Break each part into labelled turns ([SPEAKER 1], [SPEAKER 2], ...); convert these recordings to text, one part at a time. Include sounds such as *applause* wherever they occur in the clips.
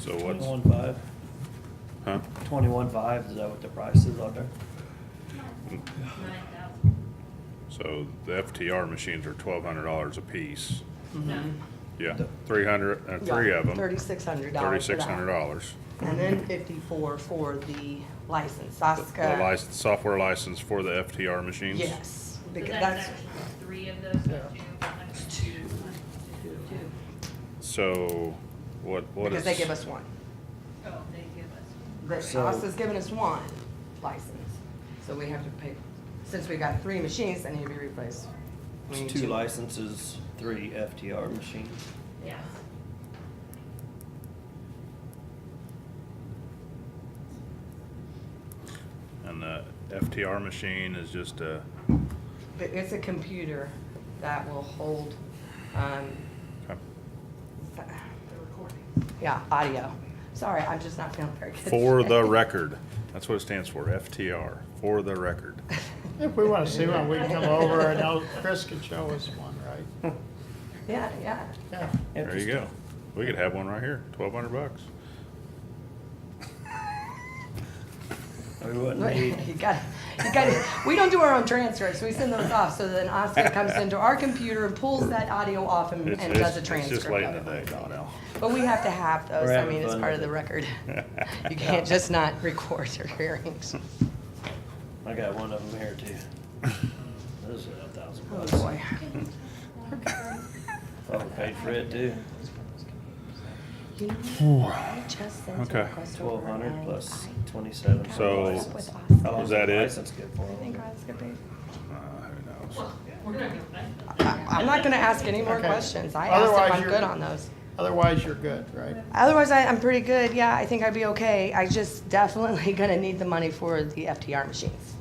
[SPEAKER 1] So what's,
[SPEAKER 2] Twenty-one five,
[SPEAKER 1] huh?
[SPEAKER 2] twenty-one five, is that what the price is on there?
[SPEAKER 3] Nine thousand.
[SPEAKER 1] So the FTR machines are twelve hundred dollars a piece.
[SPEAKER 3] No,
[SPEAKER 1] Yeah, three hundred, uh, three of them.
[SPEAKER 4] Thirty-six hundred dollars
[SPEAKER 1] Thirty-six hundred dollars.
[SPEAKER 4] And then fifty-four for the license,
[SPEAKER 1] The
[SPEAKER 4] Saska.
[SPEAKER 1] license, software license for the FTR machines?
[SPEAKER 4] Yes,
[SPEAKER 3] so
[SPEAKER 4] because
[SPEAKER 3] that's
[SPEAKER 4] that's,
[SPEAKER 3] actually three of those, not two, one, two, one, two.
[SPEAKER 1] So what, what is?
[SPEAKER 4] because they give us one.
[SPEAKER 3] Oh, they give us.
[SPEAKER 4] The
[SPEAKER 2] So-
[SPEAKER 4] Saska's giving us one license, so we have to pay, since we got three machines that need to be replaced. we need
[SPEAKER 2] It's two licenses, three FTR machines.
[SPEAKER 3] Yes.
[SPEAKER 1] And the FTR machine is just a,
[SPEAKER 4] But It's a computer that will hold, um, yeah, audio. Sorry, I'm just not feeling very good.
[SPEAKER 1] for
[SPEAKER 4] today.
[SPEAKER 1] the record. That's what it stands for, FTR, for the
[SPEAKER 4] *laughs*
[SPEAKER 1] record.
[SPEAKER 5] If we want to see one, we can come over and I'll- Chris can show us one, right?
[SPEAKER 4] *laughs* Yeah, yeah.
[SPEAKER 5] Yeah.
[SPEAKER 1] There you go. We could have one right here, twelve hundred
[SPEAKER 4] *laughs*
[SPEAKER 1] bucks.
[SPEAKER 2] We wouldn't need,
[SPEAKER 4] You got, you got, we don't do our own transcripts, we send those off, so then Oscar comes into our computer and pulls that audio off and,
[SPEAKER 1] It's-
[SPEAKER 4] and
[SPEAKER 1] it's-
[SPEAKER 4] does a
[SPEAKER 1] It's just
[SPEAKER 4] transcript
[SPEAKER 1] late
[SPEAKER 4] of
[SPEAKER 1] in the
[SPEAKER 4] it.
[SPEAKER 1] day, Donnell.
[SPEAKER 4] But we have to have those,
[SPEAKER 2] We're
[SPEAKER 4] I
[SPEAKER 2] having
[SPEAKER 4] mean, it's
[SPEAKER 2] fun
[SPEAKER 4] part of
[SPEAKER 2] with
[SPEAKER 4] the
[SPEAKER 2] it.
[SPEAKER 4] record. You can't just not record your hearings.
[SPEAKER 2] I got one of them here too.
[SPEAKER 1] Uh,
[SPEAKER 2] This is a thousand
[SPEAKER 4] Oh,
[SPEAKER 2] bucks.
[SPEAKER 4] boy.
[SPEAKER 2] Overpaid for it too.
[SPEAKER 4] You know, what? I just sent a
[SPEAKER 1] Okay.
[SPEAKER 4] request over
[SPEAKER 2] Twelve hundred
[SPEAKER 4] and
[SPEAKER 2] plus
[SPEAKER 4] I
[SPEAKER 2] twenty-seven for
[SPEAKER 1] So-
[SPEAKER 2] the license.
[SPEAKER 4] With
[SPEAKER 2] How long
[SPEAKER 1] Is
[SPEAKER 2] does
[SPEAKER 1] that
[SPEAKER 2] the
[SPEAKER 1] it?
[SPEAKER 2] License good for
[SPEAKER 4] think
[SPEAKER 2] them.
[SPEAKER 4] Oscar paid.
[SPEAKER 1] Uh, who knows?
[SPEAKER 3] We're gonna go back.
[SPEAKER 4] I- I'm not gonna ask any more
[SPEAKER 5] Okay.
[SPEAKER 4] questions, I asked if
[SPEAKER 5] Otherwise,
[SPEAKER 4] I'm
[SPEAKER 5] you're-
[SPEAKER 4] good on those.
[SPEAKER 5] Otherwise, you're good, right?
[SPEAKER 4] Otherwise, I, I'm pretty good. Yeah, I think I'd be okay. I just *laughs* definitely gonna need the money for the FTR machines.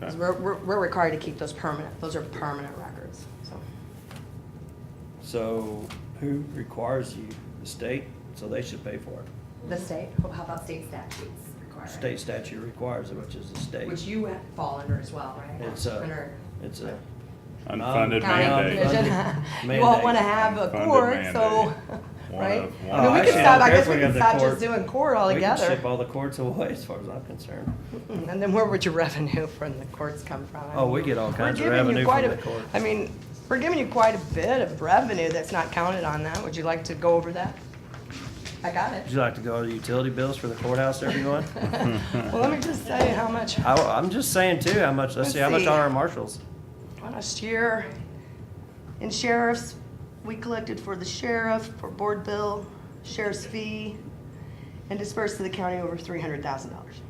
[SPEAKER 4] 'Cause
[SPEAKER 1] Okay.
[SPEAKER 4] we're, we're, we're required to keep those permanent. Those are permanent records, so.
[SPEAKER 2] So who requires you? The state? So they should pay for it.
[SPEAKER 4] The state, how about state statutes require? it?
[SPEAKER 2] State statute requires it, which is the
[SPEAKER 4] Which
[SPEAKER 2] state.
[SPEAKER 4] you fall under as well, right?
[SPEAKER 2] It's a,
[SPEAKER 4] Under-
[SPEAKER 2] it's a.
[SPEAKER 1] Unfunded
[SPEAKER 4] County
[SPEAKER 1] mandate.
[SPEAKER 4] *laughs* commission.
[SPEAKER 2] Mandate.
[SPEAKER 4] You all wanna have a
[SPEAKER 1] Funded
[SPEAKER 4] court, so,
[SPEAKER 1] mandate.
[SPEAKER 4] *laughs* right?
[SPEAKER 1] One
[SPEAKER 2] of-
[SPEAKER 4] I mean, we
[SPEAKER 2] one
[SPEAKER 4] could
[SPEAKER 2] of-
[SPEAKER 4] stop, I
[SPEAKER 2] Oh, Actually, I don't
[SPEAKER 4] guess
[SPEAKER 2] care if we have
[SPEAKER 4] we could
[SPEAKER 2] the
[SPEAKER 4] stop just
[SPEAKER 2] court.
[SPEAKER 4] doing court
[SPEAKER 2] We can
[SPEAKER 4] altogether.
[SPEAKER 2] ship all the courts away as far as I'm concerned.
[SPEAKER 4] Hmm, And then where would your *laughs* revenue from the courts come from? I
[SPEAKER 2] Oh,
[SPEAKER 4] mean,
[SPEAKER 2] we get all
[SPEAKER 4] we're
[SPEAKER 2] kinds of
[SPEAKER 4] giving you
[SPEAKER 2] revenue
[SPEAKER 4] quite
[SPEAKER 2] from
[SPEAKER 4] a-
[SPEAKER 2] the courts.
[SPEAKER 4] I mean, we're giving you quite a bit of revenue that's not counted on that. Would you like to go over that? I got
[SPEAKER 2] Would
[SPEAKER 4] it.
[SPEAKER 2] you like to go to the utility bills for the courthouse,
[SPEAKER 4] *laughs*
[SPEAKER 2] everyone?
[SPEAKER 4] Well, let me just tell you how much,
[SPEAKER 2] I, I'm just saying too, how much, let's see, how much
[SPEAKER 4] Let's see.
[SPEAKER 2] on our marshals?
[SPEAKER 4] last year, in sheriffs, we collected for the sheriff, for board bill, sheriff's fee, and dispersed to the county over three hundred thousand dollars.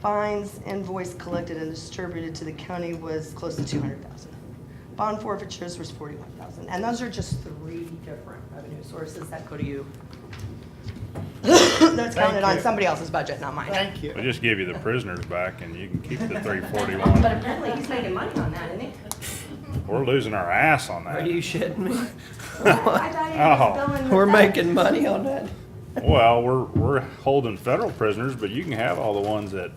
[SPEAKER 4] Fines, invoice collected and distributed to the county was close to two hundred thousand. Bond forfeitures was forty-one thousand, and those are just three different revenue sources that go to you. That's counted on
[SPEAKER 5] you.
[SPEAKER 4] somebody else's budget, not mine.
[SPEAKER 5] Thank
[SPEAKER 1] We'll
[SPEAKER 5] you.
[SPEAKER 1] just give you the prisoners back and you can keep the three
[SPEAKER 4] But
[SPEAKER 1] forty-one.
[SPEAKER 4] apparently he's making money on that,
[SPEAKER 5] *laughs*
[SPEAKER 4] isn't he?
[SPEAKER 1] We're losing our ass on
[SPEAKER 2] Are
[SPEAKER 1] that.
[SPEAKER 2] you shitting
[SPEAKER 4] *laughs*
[SPEAKER 2] me?
[SPEAKER 5] Oh.
[SPEAKER 4] I thought he
[SPEAKER 1] Oh.
[SPEAKER 4] was billing
[SPEAKER 2] We're
[SPEAKER 4] the feds.
[SPEAKER 2] making money on that?
[SPEAKER 1] Well, we're, we're holding federal prisoners, but you can have all the ones that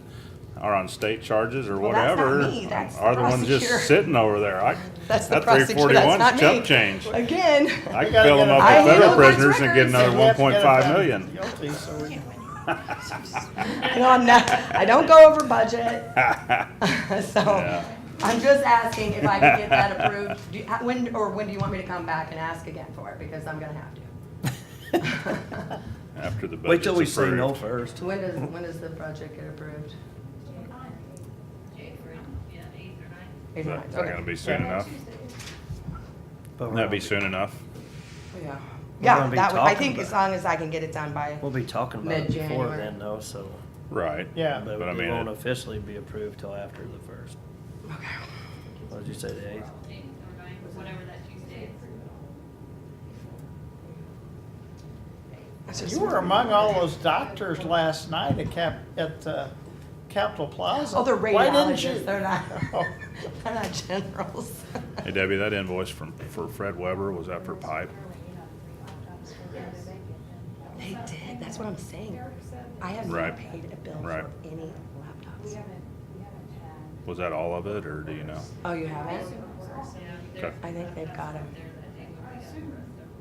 [SPEAKER 1] are on state charges or
[SPEAKER 4] Well, that's not
[SPEAKER 1] whatever.
[SPEAKER 4] me, that's the
[SPEAKER 1] Are the ones
[SPEAKER 4] prosecutor.
[SPEAKER 1] just sitting over there. I,
[SPEAKER 4] *laughs* That's the
[SPEAKER 1] that three
[SPEAKER 4] prosecutor, that's not
[SPEAKER 1] forty-one's
[SPEAKER 4] me.
[SPEAKER 1] chump change.
[SPEAKER 4] Again. *laughs*
[SPEAKER 1] I can
[SPEAKER 5] gotta
[SPEAKER 1] fill them
[SPEAKER 5] get
[SPEAKER 1] up
[SPEAKER 4] a- I
[SPEAKER 1] with federal
[SPEAKER 4] handle those
[SPEAKER 1] prisoners and get
[SPEAKER 4] records.
[SPEAKER 1] another
[SPEAKER 5] We
[SPEAKER 1] one
[SPEAKER 5] have to
[SPEAKER 1] point
[SPEAKER 5] get
[SPEAKER 1] five
[SPEAKER 5] them
[SPEAKER 1] million.
[SPEAKER 5] Guilty, so we.
[SPEAKER 4] No, I'm not, I don't go over budget, *laughs* so
[SPEAKER 1] Yeah.
[SPEAKER 4] I'm just asking if I can
[SPEAKER 1] *laughs*
[SPEAKER 4] get that approved. Do you- how- When, or when do you want me to come back and ask again for it, because I'm gonna have to.
[SPEAKER 1] *laughs* After the budget's approved.
[SPEAKER 2] Wait till we say no first.
[SPEAKER 4] When does, when does the project get approved?
[SPEAKER 3] Eighth or, yeah, eighth or ninth.
[SPEAKER 4] Eight or
[SPEAKER 1] That's
[SPEAKER 4] nine,
[SPEAKER 1] not
[SPEAKER 4] okay.
[SPEAKER 1] gonna be soon enough.
[SPEAKER 2] but we're
[SPEAKER 1] That'd be
[SPEAKER 2] not-
[SPEAKER 1] soon enough.
[SPEAKER 4] Yeah,
[SPEAKER 2] We're
[SPEAKER 4] yeah,
[SPEAKER 2] gonna be
[SPEAKER 4] that, would- I
[SPEAKER 2] talking
[SPEAKER 4] think
[SPEAKER 2] about
[SPEAKER 4] as long as I can get it done by,
[SPEAKER 2] We'll be talking about it before
[SPEAKER 4] Mid-January.
[SPEAKER 2] then though, so.
[SPEAKER 1] Right.
[SPEAKER 5] Yeah.
[SPEAKER 2] But it
[SPEAKER 1] But I mean,
[SPEAKER 2] won't
[SPEAKER 1] it-
[SPEAKER 2] officially be approved till after the first. What did you say, the eighth?
[SPEAKER 3] Eighth or ninth, whatever that Tuesday is.
[SPEAKER 4] it's just-
[SPEAKER 5] You were among all
[SPEAKER 4] *laughs*
[SPEAKER 5] those doctors last night at Cap, at uh, Capitol Plaza.
[SPEAKER 4] oh, they're
[SPEAKER 5] Why didn't you?
[SPEAKER 4] radiologists, they're not,
[SPEAKER 5] Oh.
[SPEAKER 4] *laughs* they're not generals. *laughs*
[SPEAKER 1] Hey Debbie, that invoice from, for Fred Weber, was that for pipe?
[SPEAKER 4] They did, that's what I'm saying. I have
[SPEAKER 1] Right.
[SPEAKER 4] not paid a bill
[SPEAKER 1] Right.
[SPEAKER 4] for any laptops.
[SPEAKER 1] Was that all of it, or do you know?
[SPEAKER 4] Oh, you haven't?
[SPEAKER 3] Yeah,
[SPEAKER 1] Okay.
[SPEAKER 3] they're-
[SPEAKER 4] I think they've got it.
[SPEAKER 3] they're-